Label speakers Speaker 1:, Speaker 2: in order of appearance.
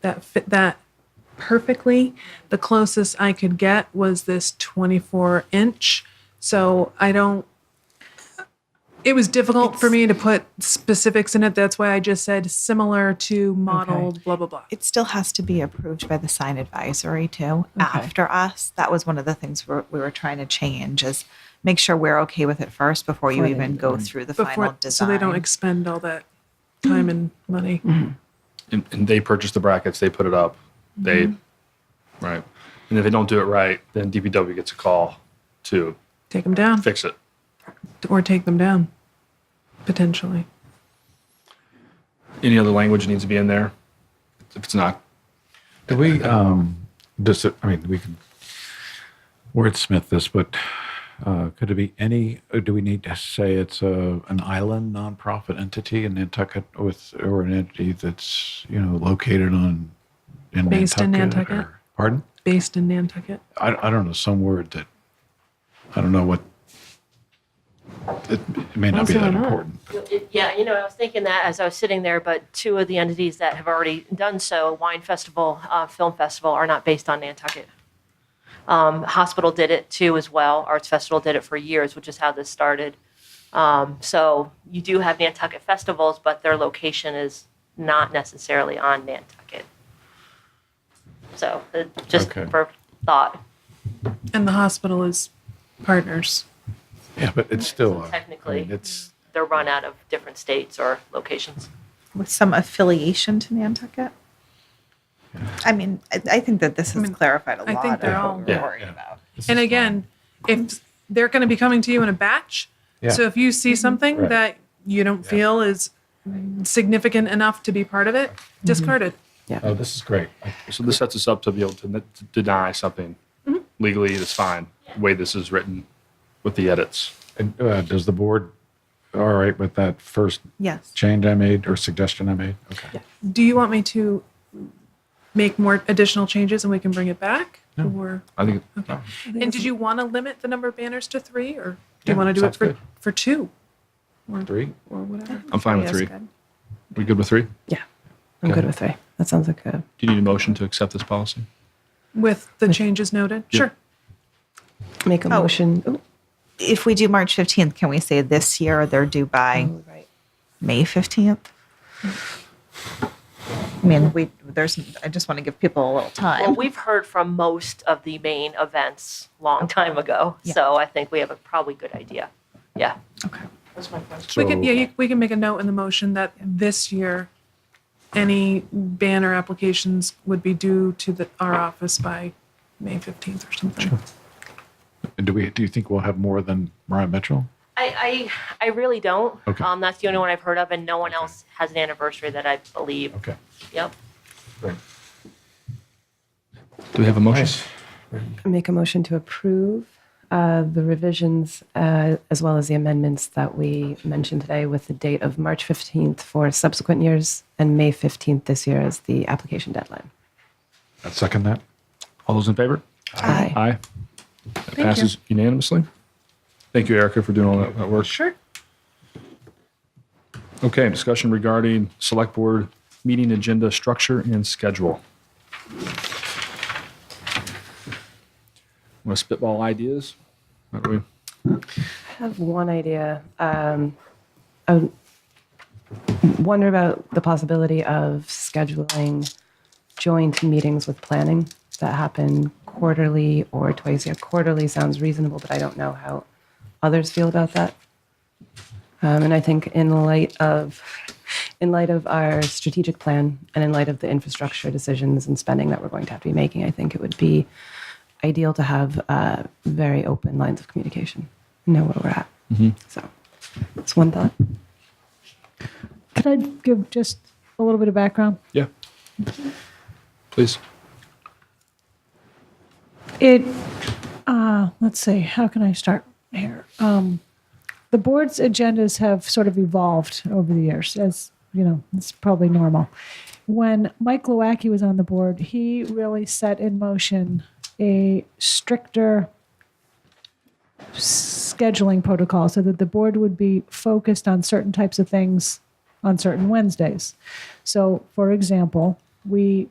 Speaker 1: that fit that perfectly. The closest I could get was this 24 inch. So I don't, it was difficult for
Speaker 2: It's-
Speaker 1: me to put specifics in it. That's why I just said similar to modeled, blah, blah, blah.
Speaker 2: It still has to be approved by the sign advisory too.
Speaker 1: Okay.
Speaker 2: After us, that was one of the things we're, we were trying to change is make sure we're okay with it first before you
Speaker 3: Before they
Speaker 2: even
Speaker 3: do
Speaker 2: go
Speaker 3: it.
Speaker 2: through the
Speaker 1: Before,
Speaker 2: final
Speaker 1: so
Speaker 2: design. Mm-hmm.
Speaker 1: they don't expend all that time and money.
Speaker 4: and, and they purchase the brackets, they put it up, they,
Speaker 1: Mm-hmm.
Speaker 4: right. And if they don't do it right, then DPW gets a call to
Speaker 1: Take them down
Speaker 4: fix it.
Speaker 1: or take them down potentially.
Speaker 4: Any other language needs to be in there? If it's not,
Speaker 5: Do we, um, does it, I mean, we can wordsmith this, but uh, could it be any, or do we need to say it's a, an island nonprofit entity in Nantucket with, or an entity that's, you know, located on, in
Speaker 1: Based in
Speaker 5: Nantucket?
Speaker 1: Nantucket.
Speaker 5: or- Pardon?
Speaker 1: Based in Nantucket.
Speaker 5: I, I don't know, some word that, I don't know what, it, it may not be
Speaker 3: Also
Speaker 5: that
Speaker 3: not.
Speaker 5: important.
Speaker 6: It- Yeah, you know, I was thinking that as I was sitting there, but two of the entities that have already done so, Wine Festival, uh, Film Festival, are not based on Nantucket. Um, Hospital did it too as well. Arts Festival did it for years, which is how this started. Um, so you do have Nantucket festivals, but their location is not necessarily on Nantucket. So uh, just
Speaker 5: Okay.
Speaker 6: for thought,
Speaker 1: And the hospital is partners.
Speaker 5: Yeah, but it's still, a- I
Speaker 6: Technically.
Speaker 5: mean, it's,
Speaker 6: they're run out of different states or locations.
Speaker 2: with some affiliation to Nantucket. I mean, I, I think that this has clarified a
Speaker 1: I
Speaker 2: lot
Speaker 1: think they're
Speaker 2: of
Speaker 1: all-
Speaker 2: what we're
Speaker 4: Yeah,
Speaker 2: worried
Speaker 5: yeah.
Speaker 2: about.
Speaker 5: this
Speaker 1: and
Speaker 5: is
Speaker 1: again, if they're going to be coming to you in a batch,
Speaker 5: Yeah. Mm-hmm.
Speaker 1: so if you see something
Speaker 5: Right.
Speaker 1: that you don't feel is significant enough to be part of it,
Speaker 5: Mm-hmm.
Speaker 1: discard it.
Speaker 5: fine. Oh, this is great. I-
Speaker 4: so this sets us up to be able to, n- to deny something
Speaker 1: Mm-hmm.
Speaker 4: legally. It's fine. The way this is written with the edits.
Speaker 5: And uh, does the board, all right with that first
Speaker 2: Yes.
Speaker 5: change I made or suggestion I made? Okay.
Speaker 1: Do you want me to make more additional changes and we can bring it back? Or
Speaker 4: I think
Speaker 1: and did you want to limit the number of banners to three, or do
Speaker 5: Yeah,
Speaker 1: you want to do it
Speaker 5: sounds
Speaker 1: for
Speaker 5: good.
Speaker 1: for two
Speaker 5: Three?
Speaker 1: or whatever?
Speaker 4: I'm fine with
Speaker 1: Yes,
Speaker 4: three.
Speaker 1: good.
Speaker 4: We good with three?
Speaker 3: Yeah, I'm good with three. That sounds like a
Speaker 4: Do you need a motion to accept this policy?
Speaker 1: With the changes noted,
Speaker 4: Yeah.
Speaker 1: sure.
Speaker 3: make a
Speaker 2: Oh.
Speaker 3: motion. Ooh,
Speaker 2: If we do March 15th, can we say this year they're due by
Speaker 1: Oh,
Speaker 3: right.
Speaker 2: May 15th? I mean, we there's. I just want to give people a little time.
Speaker 6: Well, we've heard from most of the main events long time ago,
Speaker 2: Yeah.
Speaker 6: so I think we have a probably good idea. Yeah.
Speaker 2: okay.
Speaker 6: That's my question.
Speaker 1: We can, yeah,
Speaker 5: So-
Speaker 1: you, we can make a note in the motion that this year, any banner applications would be due to the, our office by May fifteenth or something.
Speaker 5: And do we, do you think we'll have more than Mariah Mitchell?
Speaker 6: I, I, I really don't.
Speaker 5: Okay.
Speaker 6: Um, that's the only one I've heard of, and no one else has an anniversary that I believe.
Speaker 5: Okay.
Speaker 6: Yep.
Speaker 4: Do we have a motion?
Speaker 3: Make a motion to approve uh, the revisions uh, as well as the amendments that we mentioned today with the date of March 15th for subsequent years and May 15th this year as the application deadline.
Speaker 5: I second that.
Speaker 4: All those in favor?
Speaker 3: Aye.
Speaker 4: Aye. That passes unanimously. Thank you, Erica, for doing all that, that work. Sure. Okay, discussion regarding select board meeting agenda structure and schedule. Want to spitball ideas? Why don't we-
Speaker 3: I have one idea. Um, I would wonder about the possibility of scheduling joint meetings with planning that happen quarterly or twice a year. Quarterly sounds reasonable, but I don't know how others feel about that. Um, and I think in light of in light of our strategic plan and in light of the infrastructure decisions and spending that we're going to have to be making, I think it would be ideal to have uh, very open lines of communication, know where we're at. So that's one thought.
Speaker 7: Could I give just a little bit of background?
Speaker 4: Yeah. Please.
Speaker 7: It, uh, let's see, how can I start here? Um, the board's agendas have sort of evolved over the years, as you know, it's probably normal. When Mike Lowacki was on the board, he really set in motion a stricter scheduling protocol so that the board would be focused on certain types of things on certain Wednesdays. So, for example, we